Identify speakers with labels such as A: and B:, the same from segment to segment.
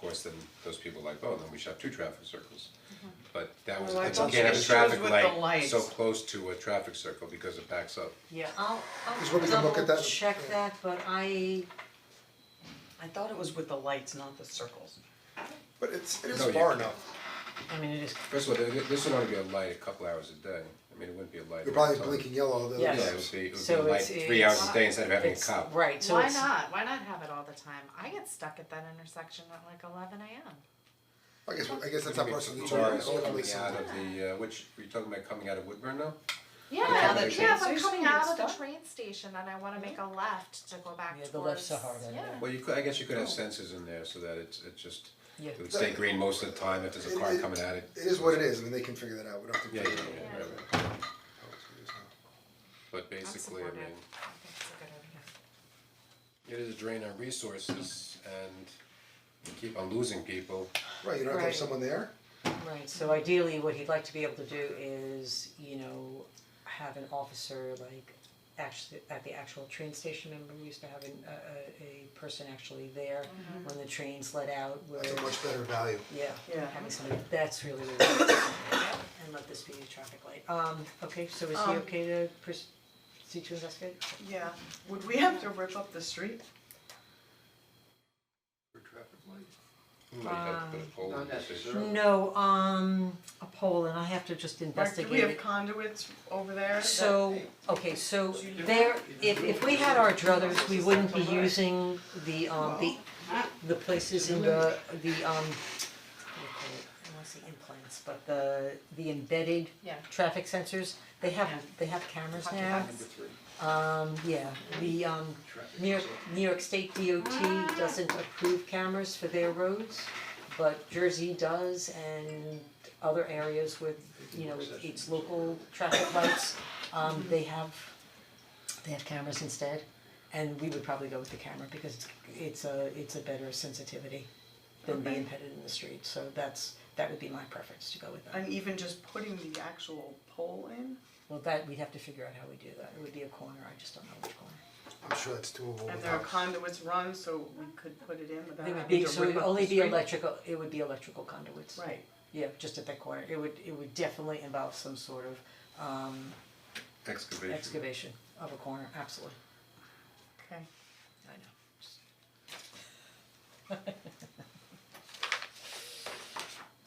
A: course, then those people are like, oh, then we should have two traffic circles. But that was,
B: Well, Oh, I
A: it's
B: thought
A: okay to have a
B: it
A: traffic
B: shows with the
A: light
B: lights.
A: so close to a traffic circle because it backs up.
B: Yeah.
C: I'll,
D: Just when
C: I'll
D: we can look at that,
C: double check
D: yeah.
C: that, but I,
B: I thought it was with the lights, not the circles.
D: But it's, it is
A: No, you
D: far
A: can't.
D: enough,
B: I mean, it is,
A: First of all, th- this would only be a light a couple hours a day, I mean, it wouldn't be a light all the
D: you're probably
A: time.
D: blinking yellow, the.
A: Yeah,
B: Yes.
A: it would be, it would be
B: So
A: a light
B: it's-
A: three hours a day instead of having a
B: it's,
A: cop.
B: right, so
E: Why
B: it's,
E: not? Why not have it all the time? I get stuck at that intersection at like eleven AM.
D: I guess, I guess that's not personally
A: Cars
D: charged, ultimately,
A: coming out
D: so-
A: of the, uh, which, were you talking about coming out of Woodburn now?
E: Yeah,
A: the
E: yeah, if
B: train
E: I'm
B: station
E: coming
B: gets
E: out of the
B: stuck?
E: train station and I wanna make a left to go back
B: Yeah,
E: towards, yeah.
B: the left's so hard, I know.
A: Well, you could, I guess you could have sensors in there so that it's, it just,
B: Yeah.
A: it would stay green most of the time if there's a
D: It-
A: car
D: it-
A: coming at it.
D: It is what it is, I mean, they can figure that out, we don't have to
A: Yeah,
D: figure
A: yeah,
D: it out.
A: yeah, right, right. But basically, I
E: supportive.
A: mean,
E: I think it's a good idea.
A: it is a drain on resources and we keep on losing people.
D: Right, you don't have to have
B: Right.
D: someone there,
B: right, so ideally, what he'd like to be able to do is, you know, have an officer like actually, at the actual train station, remember, we used to have an, a, a, a person actually there when the trains let out, where,
D: that's a much better value.
B: yeah,
C: Yeah.
B: having somebody, that's really what we'd like to do. And let this be a traffic light, um, okay, so is he
F: Um,
B: okay to proceed to investigate?
F: Yeah, would we have to rip up the street?
A: For traffic light? Might have to
B: Um,
A: put a pole in there.
B: No, um, a poll, and I have to just
F: Like, do we
B: investigate
F: have
B: it.
F: conduits over there?
B: So, okay, so there, if if we had our druthers, we wouldn't be using the um, the the places in the, the um, what do you call it? I wanna say implants, but the the embedded
E: Yeah.
B: traffic sensors, they have, they have cameras now. Um, yeah, the um, New York, New York State DOT doesn't approve cameras for their roads, but Jersey does and other areas with, you know, its local traffic lights, um, they have, they have cameras instead. And we would probably go with the camera because it's, it's a, it's a better sensitivity than being embedded in the street, so that's, that would be my preference to go with that.
F: And even just putting the actual pole in?
B: Well, that, we'd have to figure out how we do that, it would be a corner, I just don't know which corner.
D: I'm sure that's doable
F: And there are
D: without-
F: conduits run, so we could put it in without
B: They would
F: having
B: be,
F: to
B: so it
F: rip
B: would
F: up
B: only
F: the
B: be
F: street?
B: electrical, it would be electrical conduits.
F: Right,
B: Yeah, just at that corner, it would, it would definitely involve some sort of um
A: Excavation.
B: excavation of a corner, absolutely,
F: okay.
B: I know.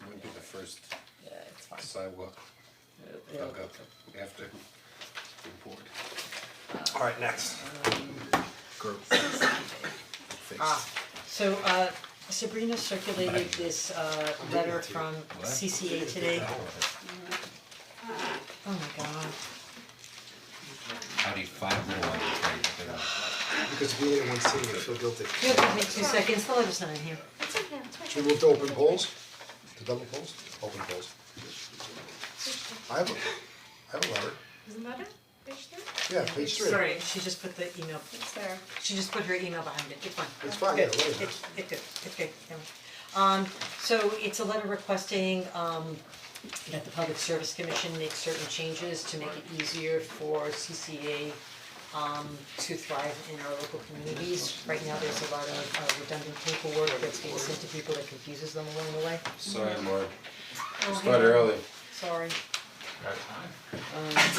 A: Wouldn't be the first
B: Yeah, it's fine.
A: sidewalk
B: It'll-
A: dug up after it's been poured.
B: Mm-hmm.
D: Alright, next.
B: Ah, so uh Sabrina circulated this uh letter from CCA today. Oh my god,
A: How do you find more?
D: Because if we didn't want to see it, I feel guilty.
B: yeah, give me two seconds, the letter's not in here.
E: It's okay, it's okay.
D: Should we move to open polls? To double polls? Open polls. I have a, I have a letter,
E: Isn't that it? Page three?
D: yeah, page three.
B: Sorry, she just put the email,
E: It's there.
B: she just put her email behind it, it's fine.
D: It's fine, yeah,
B: Good,
D: whatever.
B: it's it's good, it's good, never mind. Um so it's a letter requesting um that the Public Service Commission make certain changes to make it easier for CCA um to thrive in our local communities. Right now, there's a lot of uh, redundant paperwork that's being sent to people that confuses them along the way.
A: Sorry, Mark,
B: Oh,
A: we started early.
B: Sorry.
G: It's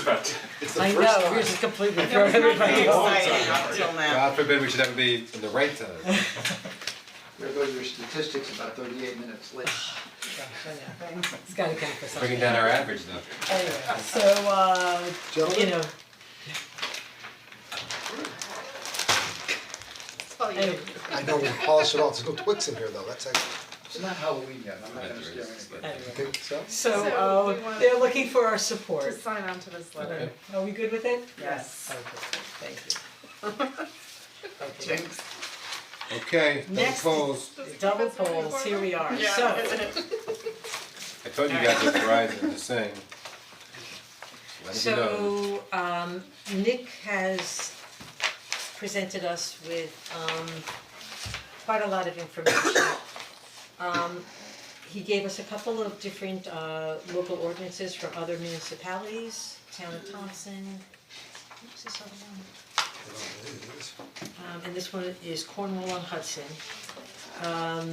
G: about
D: It's the
B: I
D: first
B: know,
D: time.
B: we're just completely throwing everybody off.
F: Exciting up till now.
A: God forbid we should ever be in the right time.
H: There goes your statistics about thirty-eight minutes late.
B: Gosh, I know. It's gotta count for something.
A: Bringing down our average now.
B: Anyway, so uh, you
D: Gentlemen?
B: know,
E: Oh, you
B: anyway,
D: I know, we polish it off, there's no Twix in here though, that's actually,
H: It's not Halloween yet, I'm not gonna scare anybody.
B: anyway.
D: you think so?
B: So,
E: So,
B: uh,
E: do you want-
B: they're looking for our
E: to
B: support.
E: sign on to this letter.
B: Are we good with it?
F: Yes.
B: Okay, thank you. Okay.
F: Jinx.
A: Okay, double
B: Next.
A: polls.
B: Double polls, here we are, so,
A: I told you guys that Verizon is saying. Let you know.
B: so, um, Nick has presented us with, um, quite a lot of information. Um, he gave us a couple of different, uh, local ordinances from other municipalities, town of Thompson, what's this other one?
D: Oh,
B: Um, and this one is Cornwall on Hudson. Um,